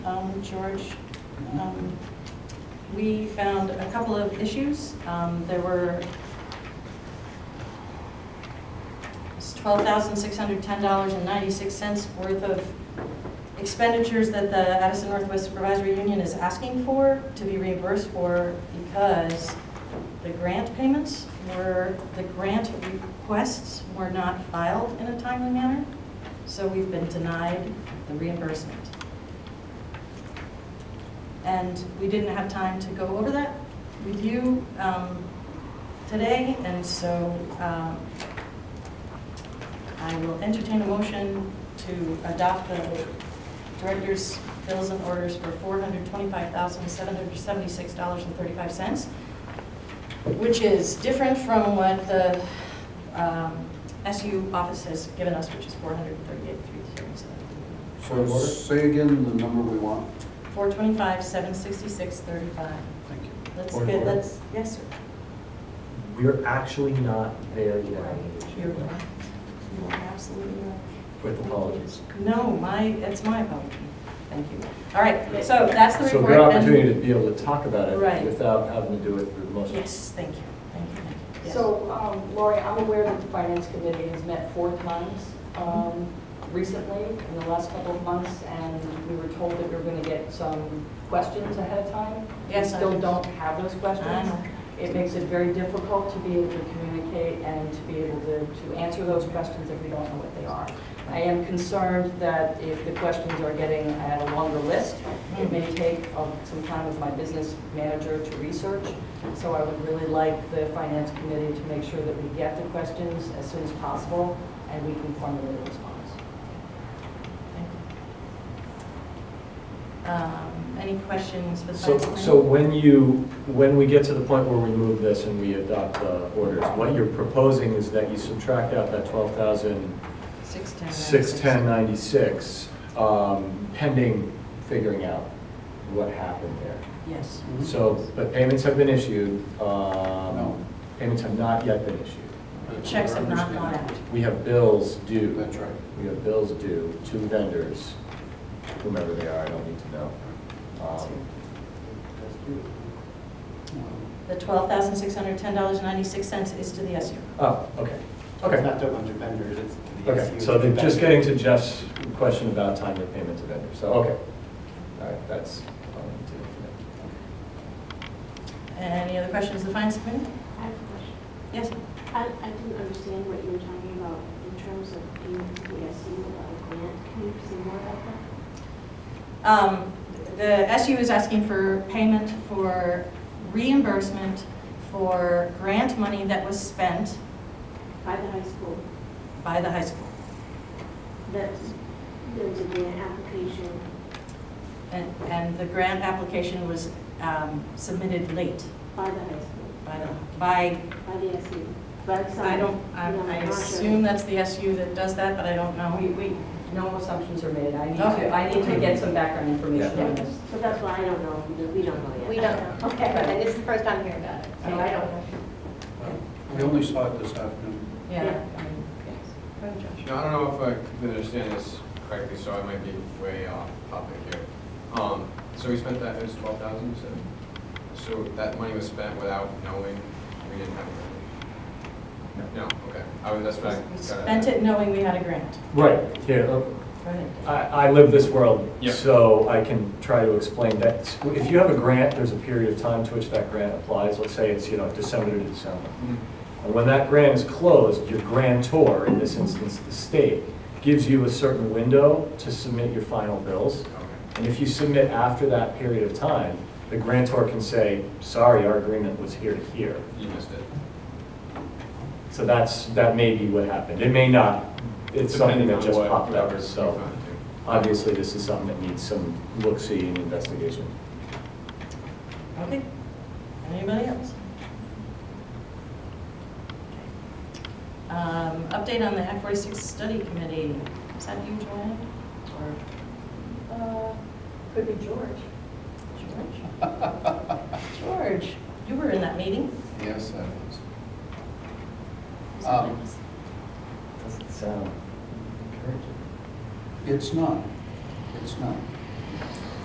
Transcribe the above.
um, George, um, we found a couple of issues. Um, There were $12,610.96 worth of expenditures that the Addison Northwest Supervisory Union is asking for to be reimbursed for because the grant payments were, the grant requests were not filed in a timely manner, so we've been denied the reimbursement. And we didn't have time to go over that with you um, today, and so um, I will entertain a motion to adopt the director's bills and orders for $425,776.35 which is different from what the um, SU office has given us, which is 438,337. So say again the number we want. 425, 766.35. Thank you. That's good, Point of order. that's, yes, sir. We're actually not there yet. You're right. You are absolutely right. With apologies. No, my, it's my apology. Thank you. All right, so that's the So report. good and- opportunity to be able to talk about Right. it without having to do it through the motion. Yes, thank you, thank you, thank you. Yes. So, um, Lori, I'm aware that the finance committee has met four times um, recently, in the last couple of months, and we were told that we were going to get some questions ahead of time. Yes, We I still know. don't have those I questions. know. It makes it very difficult to be able to communicate and to be able to, to answer those questions if we don't know what they are. I am concerned that if the questions are getting at a longer list, it may take um, some time with my business manager to research. So I would really like the finance committee to make sure that we get the questions as soon as possible and we can formulate a response. Thank you. Um, Any questions for the So, finance committee? so when you, when we get to the point where we move this and we adopt the orders, what you're proposing is that you subtract out that twelve thousand Six ten. six ten ninety-six, um, pending figuring out what happened there. Yes. So, but payments have been issued. um, Mm-hmm. No. Payments have not yet been issued. Checks have not gone out. We have bills due. That's right. We have bills due to vendors, whomever they are, I don't need to know. Um, The $12,610.96 is to the SU. Oh, okay, It's okay. not to a bunch of vendors, it's to the Okay, SU. so then just getting to Jeff's question about timely payment to vendors, so, okay. All right, that's all I need to know for Any other questions, the finance committee? I have a question. Yes? I, I didn't understand what you were talking about in terms of being to the SU about a grant. Can you say more about that? Um, The SU is asking for payment for reimbursement for grant money that was spent By the high school, by the high school. that's, there was a grant application. And, and the grant application was um, submitted late By the high school, by, the by, by the E. SU, by some. I don't, I I assume that's the SU that does that, but I don't We, know. we, no assumptions are made. I need Okay. to, I need to get some background information on this. So that's why I don't know, because we don't know yet. We don't know. Okay. And this is the first time hearing about it, so Oh, I don't know. We only saw it this afternoon. Yeah. Now, I don't know if I can understand this correctly, so I might be way off topic here. Um, so we spent that, it was twelve thousand, you said? So that money was spent without knowing, we didn't have it? No, okay, I was, that's what I We got spent it knowing we had a grant. a minute. Right, here, Go ahead. uh, I, I live this world, Yeah. so I can try to explain that. If you have a grant, there's a period of time to which that grant applies, let's say it's, you know, December to December. Mhm. And when that grant is closed, your grantor, in this instance the state, gives you a certain window to submit your final bills. Okay, And if you submit after that period of time, the grantor can say, sorry, our agreement was here to here. you missed it. So that's, that may be what happened. It may not, it's something Depending that on just what- popped whatever up, you so. found it too. Obviously, this is something that needs some look-see and investigation. Okay. Anybody else? Um, Update on the Act 46 Study Committee. Is that you, Joanne? Or Uh, Could be George. George? George, you were in that meeting. Yes, that is. Um, Doesn't sound encouraging. It's not, it's not.